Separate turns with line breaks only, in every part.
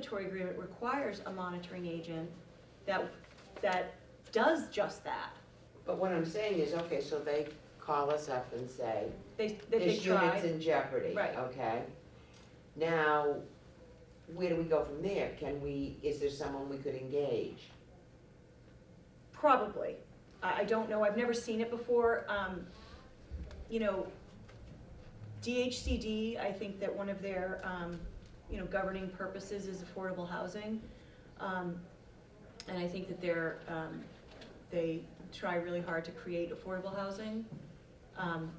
regulatory agreement requires a monitoring agent that, that does just that.
But what I'm saying is, okay, so they call us up and say,
They, that they
this
try.
unit's in jeopardy,
Right.
okay? Now, where do we go from there? Can we, is there someone we could engage?
probably. I, I don't know, I've never seen it before. Um, you know, DHCD, I think that one of their, um, you know, governing purposes is affordable housing. Um, and I think that they're, um, they try really hard to create affordable housing. Um,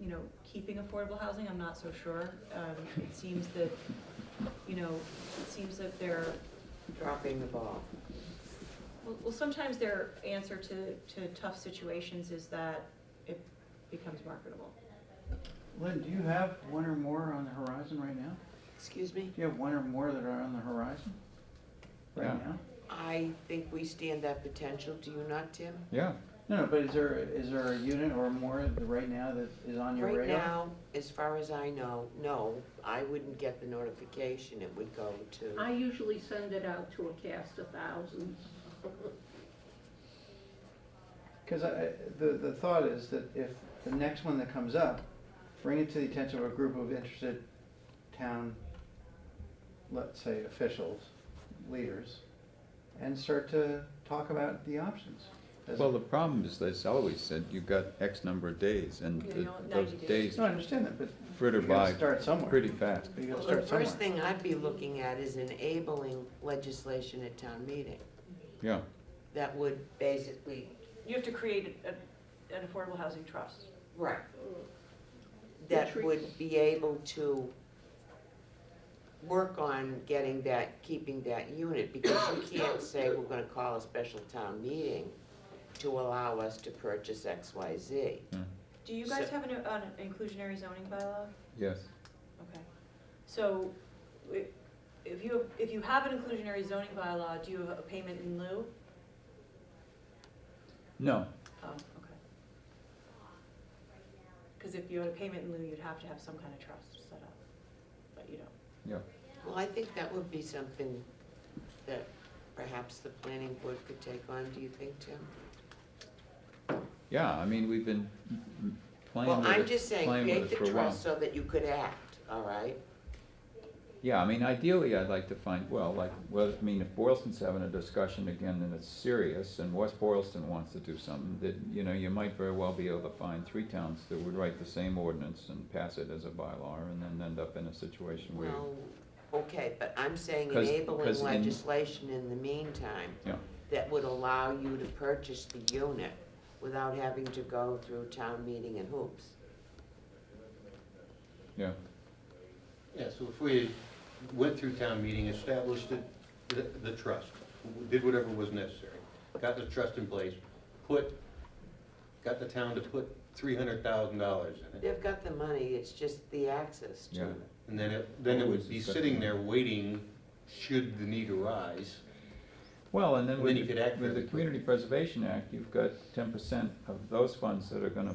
you know, keeping affordable housing, I'm not so sure. Um, it seems that, you know, it seems that they're
Dropping the ball.
well, well, sometimes their answer to, to tough situations is that it becomes marketable.
Lynn, do you have one or more on the horizon right now?
Excuse me?
Do you have one or more that are on the horizon right
Yeah.
now?
I think we stand that potential, do you not, Tim?
Yeah,
No, no, but is there, is there a unit or more that right now that is on your
Right
radar?
now, as far as I know, no, I wouldn't get the notification, it would go to,
I usually send it out to a cast of thousands.
Because I, the, the thought is that if the next one that comes up, bring it to the attention of a group of interested town, let's say officials, leaders, and start to talk about the options. As-
well, the problem is, as always said, you've got X number of days, and
Yeah,
the-
no,
those
90 days.
days
No, I understand that, but
fritter
you gotta
by
start somewhere.
pretty fast.
You
Well,
gotta
the
start somewhere.
first thing I'd be looking at is enabling legislation at town meeting.
Yeah,
That would basically
You have to create a, an affordable housing trust.
Right. That
Retreat.
would be able to work on getting that, keeping that unit, because you can't say we're gonna call a special town meeting to allow us to purchase X, Y, Z.
Do you guys
So-
have an, an inclusionary zoning bylaw?
yes.
Okay. So, i- if you, if you have an inclusionary zoning bylaw, do you have a payment in lieu?
No,
Oh, okay. Because if you had a payment in lieu, you'd have to have some kind of trust set up, but you don't.
Well, I think that would be something that perhaps the planning board could take on, do you think, Tim?
yeah, I mean, we've been m- m- playing
Well, I'm
with it,
just saying,
playing with
create
it
the
for a while.
trust so that you could act, all right?
Yeah, I mean, ideally, I'd like to find, well, like, well, I mean, if Boylston's having a discussion again and it's serious, and West Boylston wants to do something, that, you know, you might very well be able to find three towns that would write the same ordinance and pass it as a bylaw, and then end up in a situation where,
Well, okay, but I'm saying
'Cause-
enabling
'cause in-
legislation in the meantime.
Yeah.
That would allow you to purchase the unit without having to go through town meeting and hoops.
yeah.
Yeah, so if we went through town meeting, established it- the, the trust, did whatever was necessary, got the trust in place, put, got the town to put three hundred thousand dollars in it.
They've got the money, it's just the access to
Yeah.
it.
And then it, then it would be sitting there waiting, should the need arise.
Well, and then
And
with,
then you could
the-
act
with the
fairly
Community Preservation Act, you've got ten percent of those funds that are gonna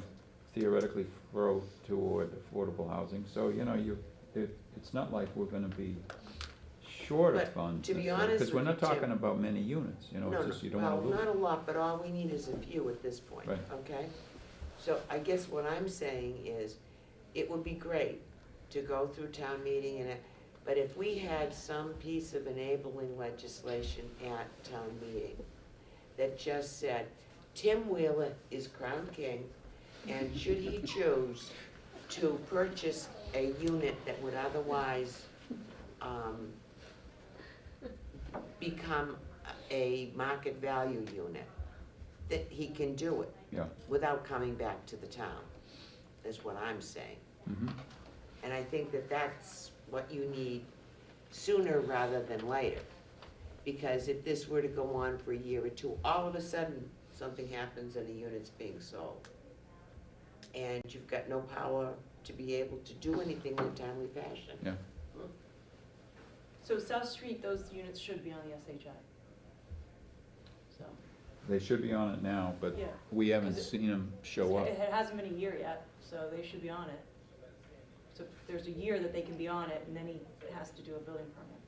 theoretically flow toward affordable housing, so, you know, you, it, it's not like we're gonna be short of
But
funds.
to be
necessarily,
honest
Cause we're
with
not
you, Tim-
talking about many units, you know,
No,
it's
no,
just you don't wanna
well,
lose.
not a lot, but all we need is a few at this point,
Right.
okay? So I guess what I'm saying is, it would be great to go through town meeting and, it- but if we had some piece of enabling legislation at town meeting that just said, Tim Wheeler is crown king, and should he choose to purchase a unit that would otherwise, um, become a market value unit, that he can do it.
Yeah.
Without coming back to the town, is what I'm saying.
Mhm.
And I think that that's what you need sooner rather than later. Because if this were to go on for a year or two, all of a sudden, something happens and the unit's being sold. And you've got no power to be able to do anything in a timely fashion.
So South Street, those units should be on the SHI. So,
They should be on it now, but
yeah.
we haven't
'Cause it-
seen them show up.
It it hasn't been a year yet, so they should be on it. So there's a year that they can be on it, and then he has to do a building permit.